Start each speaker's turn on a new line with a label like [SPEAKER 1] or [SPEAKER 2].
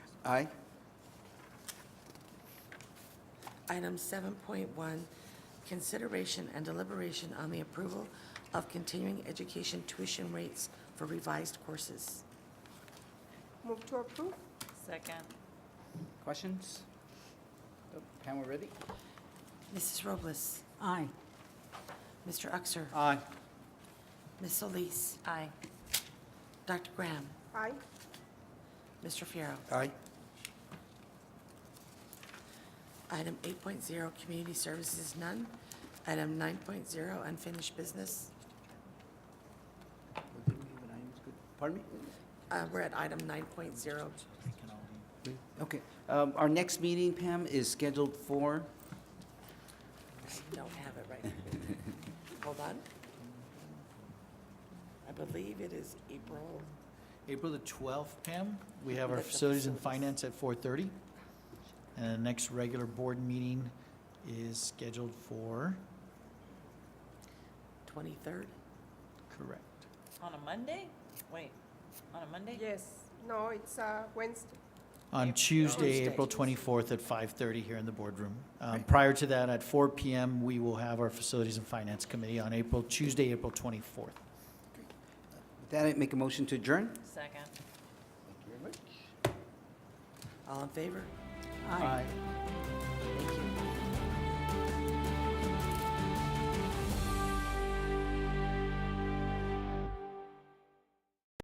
[SPEAKER 1] Aye.
[SPEAKER 2] Item 7.1, consideration and deliberation on the approval of continuing education tuition rates for revised courses.
[SPEAKER 3] Move to approve?
[SPEAKER 4] Second.
[SPEAKER 1] Questions? Nope. Pam, we're ready?
[SPEAKER 2] Mrs. Robles?
[SPEAKER 5] Aye.
[SPEAKER 2] Mr. Uxer?
[SPEAKER 1] Aye.
[SPEAKER 2] Ms. Solis?
[SPEAKER 4] Aye.
[SPEAKER 2] Dr. Graham?
[SPEAKER 3] Aye.
[SPEAKER 2] Mr. Fierro.
[SPEAKER 1] Aye.
[SPEAKER 2] Item 8.0, community services, none. Item 9.0, unfinished business.
[SPEAKER 1] Pardon me?
[SPEAKER 2] Uh, We're at item 9.0.
[SPEAKER 1] Okay. Um, Our next meeting, Pam, is scheduled for,
[SPEAKER 2] I Don't have it right. Hold on. I believe it is April,
[SPEAKER 6] April the 12th, Pam, we have our
[SPEAKER 2] That's the
[SPEAKER 6] facilities and
[SPEAKER 2] facilities.
[SPEAKER 6] finance at 4:30. And the next regular board meeting is scheduled for,
[SPEAKER 2] 23rd.
[SPEAKER 6] correct,
[SPEAKER 4] On a Monday? Wait, on a Monday?
[SPEAKER 3] Yes. No, it's uh, Wednesday.
[SPEAKER 6] on Tuesday,
[SPEAKER 2] Tuesday.
[SPEAKER 6] April 24th at 5:30 here in the boardroom. Um,
[SPEAKER 1] Right.
[SPEAKER 6] Prior to that, at 4 PM, we will have our facilities and finance committee on April, Tuesday, April 24th.
[SPEAKER 1] with that, I make a motion to adjourn?
[SPEAKER 4] Second.
[SPEAKER 1] Thank you very much.
[SPEAKER 2] All in favor?
[SPEAKER 5] Aye.
[SPEAKER 2] Thank you.